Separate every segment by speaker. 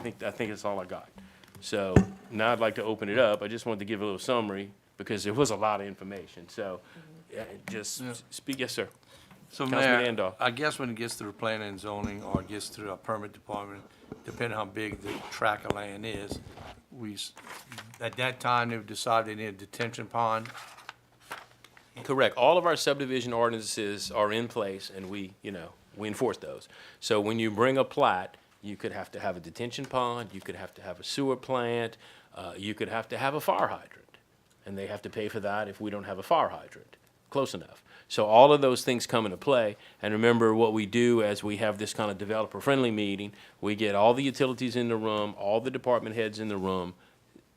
Speaker 1: think, I think that's all I got. So now I'd like to open it up. I just wanted to give a little summary because there was a lot of information. So uh, just
Speaker 2: Yeah.
Speaker 1: speak, yes, sir.
Speaker 2: So
Speaker 1: Councilman
Speaker 2: Mayor,
Speaker 1: Andoff.
Speaker 2: I guess when it gets through planning and zoning or it gets through our permit department, depending how big the tract of land is, we, s- at that time, they would decide they need a detention pond.
Speaker 1: Correct. All of our subdivision ordinances are in place and we, you know, we enforce those. So when you bring a plat, you could have to have a detention pond, you could have to have a sewer plant, uh, you could have to have a fire hydrant. And they have to pay for that if we don't have a fire hydrant, close enough. So all of those things come into play. And remember, what we do as we have this kind of developer-friendly meeting, we get all the utilities in the room, all the department heads in the room,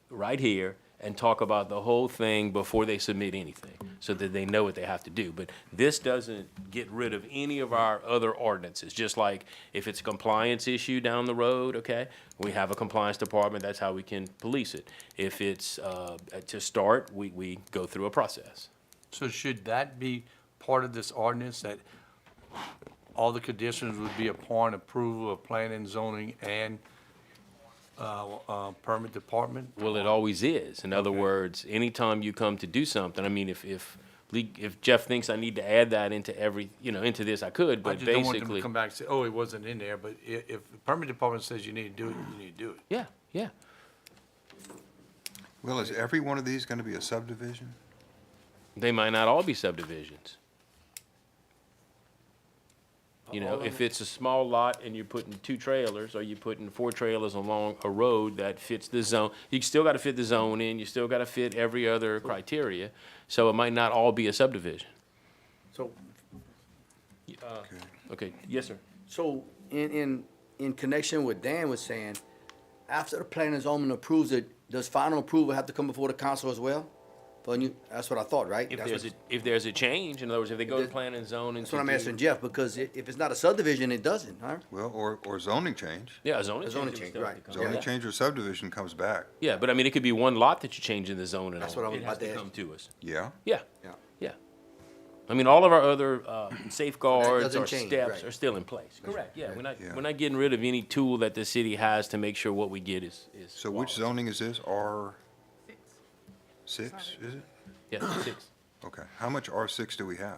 Speaker 1: right here and talk about the whole thing before they submit anything, so that they know what they have to do. But this doesn't get rid of any of our other ordinances, just like if it's a compliance issue down the road, okay? We have a compliance department, that's how we can police it. If it's, uh, to start, we, we go through a process.
Speaker 2: So should that be part of this ordinance that all the conditions would be upon approval of planning and zoning and, uh, uh, permit department?
Speaker 1: Well, it always is. In other words, anytime you come to do something, I mean, if, if, le- if Jeff thinks I need to add that into every, you know, into this, I could,
Speaker 2: I
Speaker 1: but
Speaker 2: just don't want them
Speaker 1: basically.
Speaker 2: to come back and say, oh, it wasn't in there, but i- if the permit department says you need to do it, you need to do it.
Speaker 1: Yeah, yeah.
Speaker 3: Well, is every one of these going to be a subdivision?
Speaker 1: They might not all be subdivisions. You know, if it's a small lot and you're putting two trailers, or you're putting four trailers along a road that fits the zone, you still gotta fit the zone in, you still gotta fit every other criteria, so it might not all be a subdivision.
Speaker 4: So,
Speaker 3: Okay.
Speaker 1: Okay, yes, sir.
Speaker 4: so in, in, in connection with Dan was saying, after the planning and zoning approves it, does final approval have to come before the council as well? For new, that's what I thought, right?
Speaker 1: If
Speaker 4: That's
Speaker 1: there's a,
Speaker 4: what-
Speaker 1: if there's a change, in other words, if they go to
Speaker 4: That-
Speaker 1: plan and zone and.
Speaker 4: That's what I'm
Speaker 1: to do-
Speaker 4: asking Jeff, because i- if it's not a subdivision, it doesn't, huh?
Speaker 3: Well, or, or zoning change.
Speaker 1: Yeah, a zoning
Speaker 4: A zoning
Speaker 1: change. it would still
Speaker 4: change,
Speaker 1: have
Speaker 4: right.
Speaker 1: to come.
Speaker 3: Zoning
Speaker 1: Yeah.
Speaker 3: change or subdivision comes back,
Speaker 1: Yeah, but I mean, it could be one lot that you change in the zone and all.
Speaker 4: That's what I was
Speaker 1: It has
Speaker 4: about to ask.
Speaker 1: Come to us.
Speaker 3: yeah?
Speaker 1: Yeah.
Speaker 4: Yeah.
Speaker 1: Yeah. I mean, all of our other uh, safeguards
Speaker 4: doesn't
Speaker 1: or
Speaker 4: change,
Speaker 1: steps
Speaker 4: right.
Speaker 1: are still in place. Correct, yeah, we're not,
Speaker 3: Yeah.
Speaker 1: we're not getting rid of any tool that the city has to make sure what we get is, is.
Speaker 3: So
Speaker 1: flawless.
Speaker 3: which zoning is this? R? Six, is it?
Speaker 1: Yeah, six.
Speaker 3: Okay. How much R six do we have?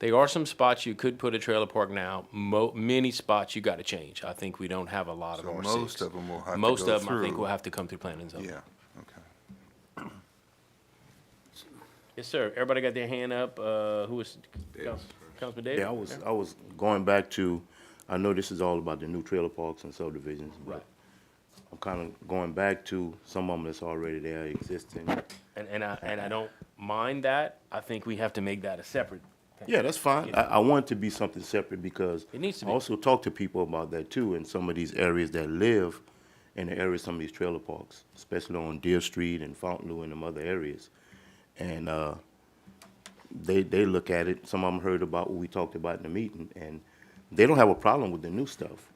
Speaker 1: There are some spots you could put a trailer park now, mo, many spots you gotta change. I think we don't have a lot of
Speaker 3: So
Speaker 1: R six.
Speaker 3: most of 'em will have to
Speaker 1: Most
Speaker 3: go
Speaker 1: of them, I think,
Speaker 3: through.
Speaker 1: will have to come through planning zone.
Speaker 3: Yeah, okay.
Speaker 1: Yes, sir, everybody got their hand up, uh, who was, Council- Councilman Davis?
Speaker 5: Yeah, I was, I was going back to, I know this is all about the new trailer parks and subdivisions,
Speaker 1: Right.
Speaker 5: but I'm kind of going back to some of them that's already there existing.
Speaker 1: And, and I, and I don't mind that, I think we have to make that a separate thing.
Speaker 5: Yeah, that's fine. I, I want it to be something separate because
Speaker 1: It needs to
Speaker 5: I
Speaker 1: be.
Speaker 5: also talk to people about that too, in some of these areas that live in the areas, some of these trailer parks, especially on Deer Street and Fontainebleau and them other areas. And, uh, they, they look at it, some of them heard about what we talked about in the meeting, and they don't have a problem with the new stuff.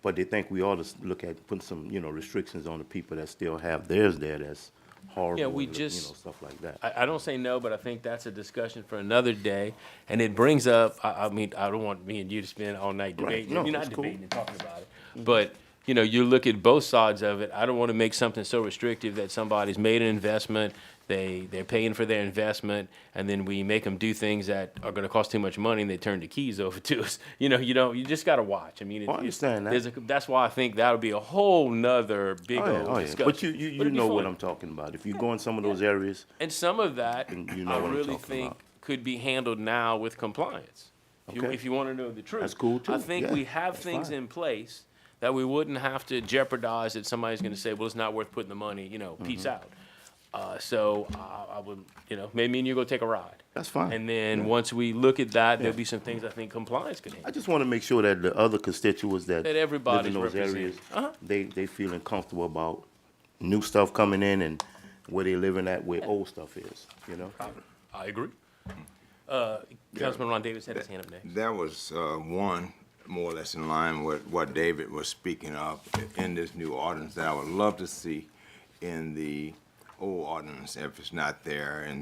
Speaker 5: But they think we ought to s- look at putting some, you know, restrictions on the people that still have theirs there that's horrible,
Speaker 1: Yeah,
Speaker 5: and
Speaker 1: we
Speaker 5: look- you know,
Speaker 1: just-
Speaker 5: stuff like that.
Speaker 1: I, I don't say no, but I think that's a discussion for another day. And it brings up, I, I mean, I don't want me and you to spend all night
Speaker 5: Right,
Speaker 1: debating.
Speaker 5: no,
Speaker 1: You're not
Speaker 5: it's cool.
Speaker 1: debating
Speaker 5: Mm-hmm.
Speaker 1: and talking about it. But, you know, you look at both sides of it. I don't want to make something so restrictive that somebody's made an investment, they, they're paying for their investment, and then we make them do things that are going to cost too much money and they turn the keys over to us. You know, you don't, you just got to watch. I mean, it-
Speaker 5: Oh, I understand that.
Speaker 1: there's a- That's why I think that would be a whole nother big
Speaker 5: Oh, yeah, oh,
Speaker 1: old
Speaker 5: yeah.
Speaker 1: discussion.
Speaker 5: But you, you, you
Speaker 1: it'd be
Speaker 5: know what
Speaker 1: fun.
Speaker 5: I'm talking about. If you go in some of those areas,
Speaker 1: And some of that,
Speaker 5: And you know
Speaker 1: I
Speaker 5: what I'm
Speaker 1: really
Speaker 5: talking
Speaker 1: think
Speaker 5: about.
Speaker 1: could be handled now with compliance. If you,
Speaker 5: Okay.
Speaker 1: if you wanna know the truth.
Speaker 5: That's cool
Speaker 1: I
Speaker 5: too.
Speaker 1: think
Speaker 5: Yeah,
Speaker 1: we have
Speaker 5: that's
Speaker 1: things
Speaker 5: fine.
Speaker 1: in place that we wouldn't have to jeopardize that somebody's gonna say, well, it's not worth putting the money, you know, peace
Speaker 5: Mm-hmm.
Speaker 1: out. Uh, so I, I would, you know, maybe me and you go take a ride.
Speaker 5: That's fine.
Speaker 1: And then, once we look at that, there'll be some things I think compliance can handle.
Speaker 5: I just want to make sure that the other constituents that.
Speaker 1: That everybody's
Speaker 5: live in those
Speaker 1: represented.
Speaker 5: areas,
Speaker 1: Uh-huh.
Speaker 5: They, they feeling comfortable about new stuff coming in and where they living at, where old stuff is, you know?
Speaker 1: I agree. Uh, Councilman Ron Davis had his hand up next.
Speaker 6: That was uh, one, more or less in line with what David was speaking of in this new ordinance that I would love to see in the old ordinance if it's not there, and